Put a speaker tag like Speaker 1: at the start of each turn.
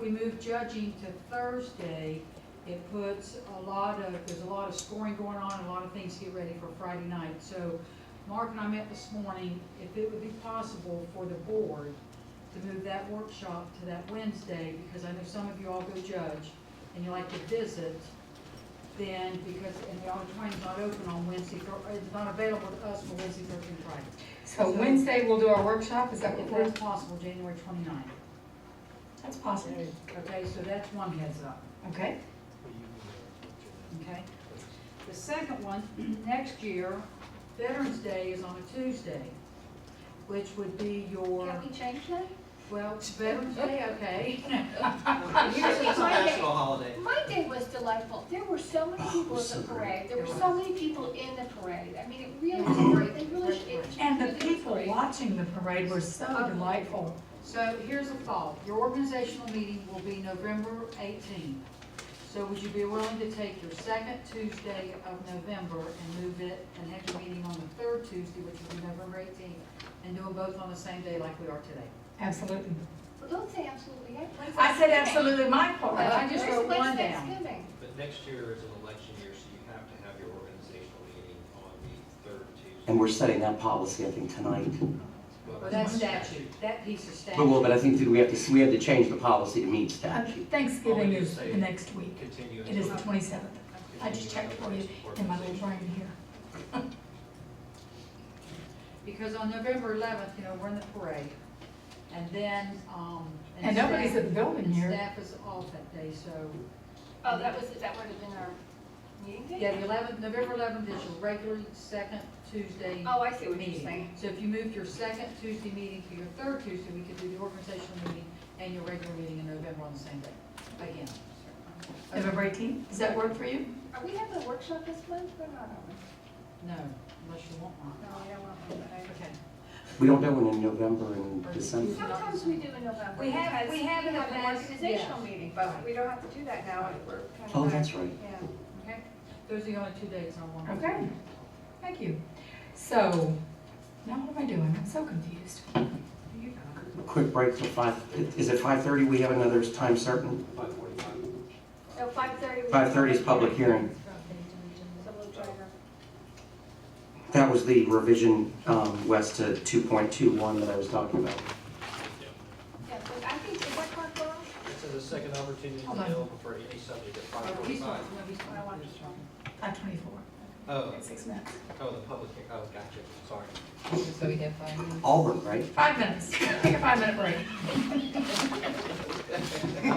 Speaker 1: we move judging to Thursday, it puts a lot of, there's a lot of scoring going on, a lot of things to get ready for Friday night. So Mark and I met this morning, if it would be possible for the board to move that workshop to that Wednesday, because I know some of you all go judge and you like to visit, then because, and the auditorium's not open on Wednesday, Thur- it's not available to us for Wednesday, Thursday, and Friday.
Speaker 2: So Wednesday, we'll do our workshop, is that what
Speaker 1: If
Speaker 2: we're,
Speaker 1: that's possible, January 29th.
Speaker 2: that's possible,
Speaker 1: Okay, so that's one heads up,
Speaker 2: okay?
Speaker 1: okay? The second one, next year, Veterans Day is on a Tuesday, which would be your,
Speaker 3: Can we change that?
Speaker 1: well, Veterans Day, okay.
Speaker 3: Here's the
Speaker 4: It's a
Speaker 3: Monday.
Speaker 4: national holiday.
Speaker 3: My day was delightful. There were so
Speaker 5: Oh,
Speaker 3: many people at the parade. There were so many people in the parade. I mean, it really was great. They really should. it should
Speaker 2: And
Speaker 3: be
Speaker 2: the
Speaker 3: a
Speaker 2: people
Speaker 3: parade.
Speaker 2: watching the parade were so delightful.
Speaker 1: So here's a thought, your organizational meeting will be November eighteenth. So would you be willing to take your second Tuesday of November and move it, and have your meeting on the third Tuesday, which would be November eighteenth, and do them both on the same day like we are today?
Speaker 2: Absolutely.
Speaker 3: Well, Don't say absolutely. yet. When's
Speaker 2: I said
Speaker 3: Thanksgiving?
Speaker 2: absolutely my
Speaker 1: Uh,
Speaker 2: part.
Speaker 1: I just
Speaker 3: Where's-
Speaker 1: wrote
Speaker 3: when's
Speaker 1: one down.
Speaker 3: Thanksgiving?
Speaker 4: But next year is an election year, so you have to have your organizational meeting on the third Tuesday.
Speaker 5: And we're setting that policy, I think, tonight.
Speaker 4: Well,
Speaker 1: But that's statute, that piece of statute.
Speaker 5: But well, but I think that we have to, we have to change the policy to meet statute.
Speaker 2: Thanksgiving is the next week.
Speaker 4: Continue.
Speaker 2: It is the
Speaker 4: until-
Speaker 2: twenty-seventh. I just checked for you in my little brain here.
Speaker 1: Because on November eleventh, you know, we're in the parade, and then, um.
Speaker 2: And nobody's
Speaker 1: staff-
Speaker 2: at the building
Speaker 1: And
Speaker 2: here.
Speaker 1: staff is off that day, so,
Speaker 3: Oh, that was, that would have been our meeting
Speaker 1: yeah,
Speaker 3: day?
Speaker 1: the eleventh, November eleventh is your regular second Tuesday
Speaker 3: Oh, I see what you're
Speaker 1: meeting.
Speaker 3: saying.
Speaker 1: So if you moved your second Tuesday meeting to your third Tuesday, we could do the organizational meeting and your regular meeting in November on the same day, again.
Speaker 2: November eighteenth, does that work for you?
Speaker 3: Are we having a workshop this month or not? are we?
Speaker 1: No, unless you want one.
Speaker 3: No, I don't want one, but I.
Speaker 1: Okay.
Speaker 5: We don't do one in November and December.
Speaker 3: Sometimes we do in November.
Speaker 1: We have-
Speaker 3: because
Speaker 1: we have in the
Speaker 3: an
Speaker 1: past,
Speaker 3: Organizational
Speaker 1: yes.
Speaker 3: meeting, but we don't have to do that now. We're kind of
Speaker 5: Oh,
Speaker 3: back-
Speaker 5: that's right.
Speaker 3: Yeah.
Speaker 1: Okay, those are the only two dates I want.
Speaker 2: Okay, thank you. So, now what am I doing? I'm so confused.
Speaker 5: Quick break for five, is it five thirty? We have another time certain.
Speaker 4: Five forty-five.
Speaker 3: So five thirty.
Speaker 5: Five thirty is public hearing.
Speaker 3: So we'll try to.
Speaker 5: That was the revision, um, west to two point two one that I was talking about.
Speaker 3: Yeah, but I think, is that correct, Laura?
Speaker 4: It says a second opportunity
Speaker 2: Hold on.
Speaker 4: available for any subject at five
Speaker 1: Oh, he's one,
Speaker 4: forty-five.
Speaker 1: no, he's one.
Speaker 3: I want to try.
Speaker 2: Five twenty-four,
Speaker 4: Oh,
Speaker 2: six minutes.
Speaker 4: oh, the public, hear- oh, gotcha, sorry.
Speaker 6: So we have five minutes.
Speaker 5: Auburn, right?
Speaker 2: Five minutes, take a five-minute break.